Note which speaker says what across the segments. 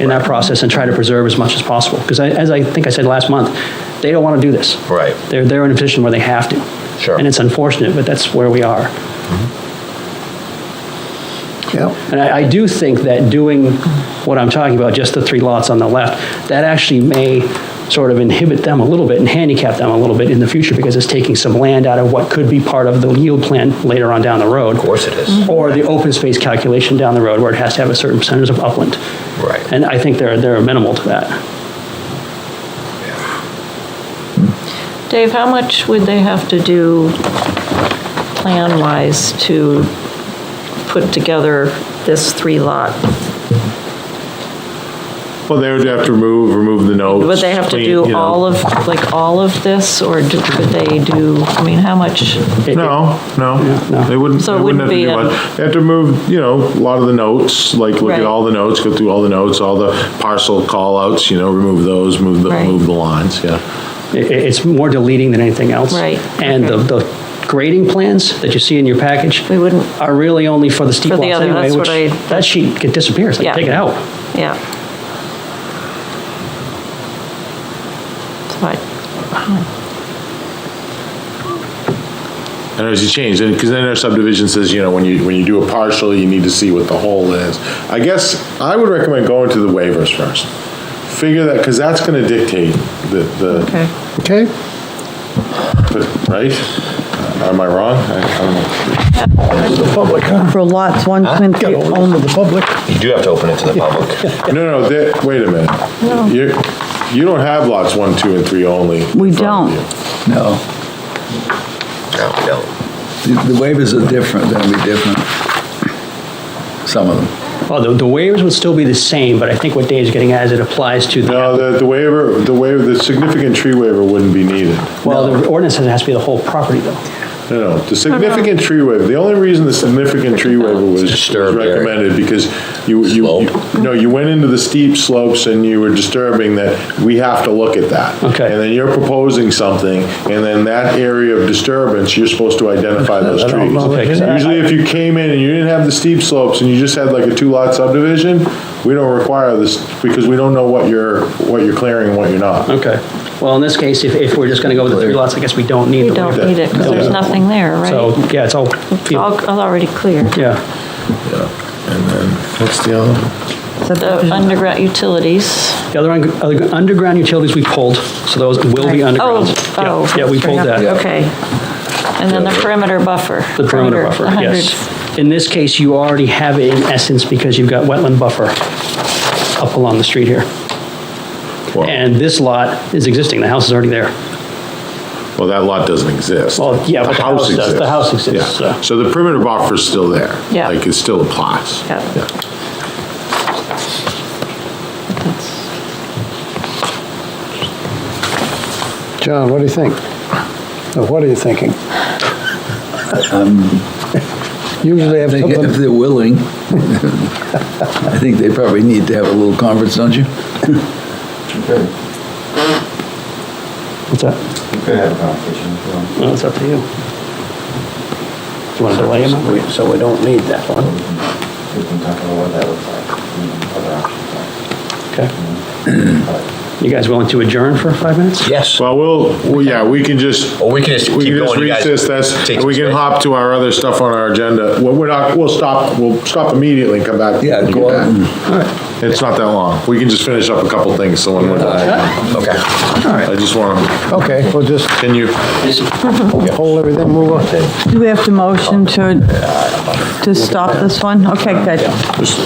Speaker 1: in that process and try to preserve as much as possible. Because as I think I said last month, they don't want to do this.
Speaker 2: Right.
Speaker 1: They're, they're in a position where they have to.
Speaker 2: Sure.
Speaker 1: And it's unfortunate, but that's where we are.
Speaker 3: Yeah,
Speaker 1: And I, I do think that doing what I'm talking about, just the three lots on the left, that actually may sort of inhibit them a little bit and handicap them a little bit in the future because it's taking some land out of what could be part of the yield plan later on down the road.
Speaker 2: Of course it
Speaker 4: Mm-hmm.
Speaker 2: is.
Speaker 1: Or the open space calculation down the road where it has to have a certain percentage of upland.
Speaker 2: Right.
Speaker 1: And I think they're, they're amenable to that.
Speaker 5: Dave, how much would they have to do plan-wise to put together this three-lot?
Speaker 4: Well, they would have to remove, remove the notes.
Speaker 5: Would they have to
Speaker 4: clean,
Speaker 5: do
Speaker 4: you know.
Speaker 5: all of, like, all of this, or do- could they do, I mean, how much?
Speaker 1: It-
Speaker 4: No,
Speaker 1: no.
Speaker 4: no, they wouldn't,
Speaker 5: So it
Speaker 4: they wouldn't have
Speaker 5: wouldn't
Speaker 4: to do
Speaker 5: be, um,
Speaker 4: much. They have to remove, you know, a lot of the notes, like look
Speaker 5: Right.
Speaker 4: at all the notes, go through all the notes, all the parcel callouts, you know, remove those, move the,
Speaker 5: Right.
Speaker 4: move the lines, yeah.
Speaker 1: It- It's more deleting than anything else.
Speaker 5: Right,
Speaker 1: And the,
Speaker 5: okay.
Speaker 1: the grading plans that you see in your package.
Speaker 5: We wouldn't-
Speaker 1: Are really only for the steep
Speaker 5: For
Speaker 1: lots
Speaker 5: the other,
Speaker 1: anyway,
Speaker 5: that's
Speaker 1: which,
Speaker 5: what I-
Speaker 1: that sheet get- disappears, like,
Speaker 5: Yeah.
Speaker 1: take it out.
Speaker 5: Yeah. So I-
Speaker 4: And as you change, and, because then our subdivision says, you know, when you, when you do a partial, you need to see what the whole is. I guess I would recommend going to the waivers first. Figure that, because that's gonna dictate the, the,
Speaker 5: Okay.
Speaker 3: okay.
Speaker 4: right? Am I wrong? I I don't know.
Speaker 3: The public, huh?
Speaker 6: For lots one, two, and
Speaker 3: Got
Speaker 6: three
Speaker 3: all
Speaker 6: only.
Speaker 3: over the public.
Speaker 2: You do have to open it to the public.
Speaker 4: No, no, that, wait a minute. You, you don't have lots one, two, and three only. in
Speaker 6: We
Speaker 4: front of
Speaker 6: don't.
Speaker 4: you.
Speaker 7: No,
Speaker 2: No, we don't.
Speaker 7: the the waivers are different, they'll be different. Some of them.
Speaker 1: Well, the, the waivers would still be the same, but I think what Dave's getting at is it applies to the,
Speaker 4: No, the, the waiver, the waiver, the significant tree waiver wouldn't be needed.
Speaker 1: well, the ordinance says it has to be the whole property though.
Speaker 4: No, no, the significant tree waiver, the only reason the significant tree waiver was was
Speaker 2: Disturbed area.
Speaker 4: recommended because you, you, you- no, you went into the steep slopes and you were disturbing that, we have to look at that.
Speaker 1: Okay.
Speaker 4: And then you're proposing something, and then that area of disturbance, you're supposed to identify those
Speaker 1: I don't
Speaker 4: trees.
Speaker 1: know. Okay, 'cause I-
Speaker 4: Usually if you came in and you didn't have the steep slopes and you just had like a two-lot subdivision, we don't require this, because we don't know what you're, what you're clearing and what you're not.
Speaker 1: Okay. Well, in this case, if, if we're just going to go with the three lots, I guess we don't need
Speaker 5: You
Speaker 1: the
Speaker 5: don't
Speaker 1: waiver.
Speaker 5: need it, because there's
Speaker 4: Yeah.
Speaker 5: nothing there,
Speaker 1: So,
Speaker 5: right?
Speaker 1: yeah, it's all,
Speaker 5: It's all all already clear.
Speaker 1: yeah.
Speaker 4: What's the other?
Speaker 5: The underground utilities.
Speaker 1: The other, un- other underground utilities we pulled, so those will be underground.
Speaker 5: Oh,
Speaker 1: Yeah,
Speaker 5: oh.
Speaker 1: Yeah, we pulled that.
Speaker 5: Okay. And then the perimeter buffer.
Speaker 1: The perimeter buffer,
Speaker 5: 100.
Speaker 1: yes. In this case, you already have it in essence because you've got wetland buffer up along the street here. And this lot is existing, the house is already there.
Speaker 4: Well, that lot doesn't exist.
Speaker 1: Well, yeah, but the house does. The house exists,
Speaker 4: Yeah.
Speaker 1: so.
Speaker 4: So the perimeter buffer's still there.
Speaker 5: Yeah.
Speaker 4: Like, it still applies.
Speaker 5: Yeah.
Speaker 3: John, what do you think? Or what are you thinking? Usually I have
Speaker 7: I think If
Speaker 3: something,
Speaker 7: they're willing, I think they probably need to have a little conference, don't you?
Speaker 1: What's that? Well, it's up to you. Do you want to delay him? So we don't need that one.
Speaker 8: We can talk about what that looks like, you know, other options are. Mm-hmm.
Speaker 1: Okay. You guys willing to adjourn for five minutes?
Speaker 2: Yes.
Speaker 4: Well, we'll, well, yeah, we can just,
Speaker 2: Or we can just
Speaker 4: we
Speaker 2: keep
Speaker 4: can just
Speaker 2: going. You guys
Speaker 4: recess this,
Speaker 2: take
Speaker 4: and we
Speaker 2: some
Speaker 4: can
Speaker 2: space.
Speaker 4: hop to our other stuff on our agenda. Well, we're not, we'll stop, we'll stop immediately and come back.
Speaker 7: Yeah,
Speaker 4: when you
Speaker 7: go
Speaker 4: get
Speaker 7: out
Speaker 4: back. It's not that long. We can just finish up a couple things, so when we're done.
Speaker 2: Okay.
Speaker 4: I just want to,
Speaker 3: okay, we'll just
Speaker 4: can you,
Speaker 3: hold everything, move on.
Speaker 6: Do we have to motion to, to stop this one? Okay, good.
Speaker 4: just-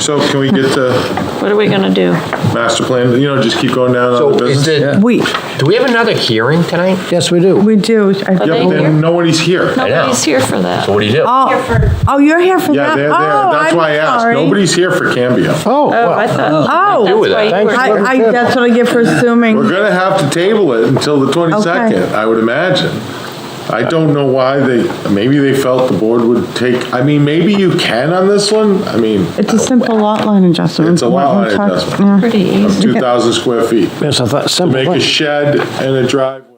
Speaker 4: so can we get the
Speaker 5: What are we going to do?
Speaker 4: master plan, you know, just keep going down on the
Speaker 2: So is
Speaker 4: business?
Speaker 2: the,
Speaker 6: We,
Speaker 2: do we have another hearing tonight?
Speaker 3: Yes, we do.
Speaker 6: we do.
Speaker 5: Are
Speaker 4: Yep,
Speaker 5: they here?
Speaker 4: then nobody's here.
Speaker 2: know.
Speaker 5: Nobody's here for that.
Speaker 2: So what do you do?
Speaker 6: Oh, oh, you're here for that?
Speaker 4: Yeah, they're there.
Speaker 6: Oh,
Speaker 4: That's
Speaker 6: I'm
Speaker 4: why I asked.
Speaker 6: sorry.
Speaker 4: Nobody's here for Cambio.
Speaker 3: Oh,
Speaker 5: Oh, I
Speaker 3: well,
Speaker 5: thought,
Speaker 6: Oh.
Speaker 5: that's why you
Speaker 3: Thanks
Speaker 5: were.
Speaker 3: for
Speaker 6: I, I, that's what I get for assuming.
Speaker 4: We're gonna have to table it until the 22nd,
Speaker 6: Okay.
Speaker 4: I would imagine. I don't know why they, maybe they felt the board would take, I mean, maybe you can on this one, I mean,
Speaker 6: It's a simple lot line adjustment.
Speaker 4: It's a lot line
Speaker 6: We're talking-
Speaker 4: adjustment.
Speaker 5: Pretty easy.
Speaker 4: of 2,000 square feet.
Speaker 3: yes, I thought,
Speaker 4: To
Speaker 3: simple
Speaker 4: make a
Speaker 3: thing.
Speaker 4: shed and a driveway.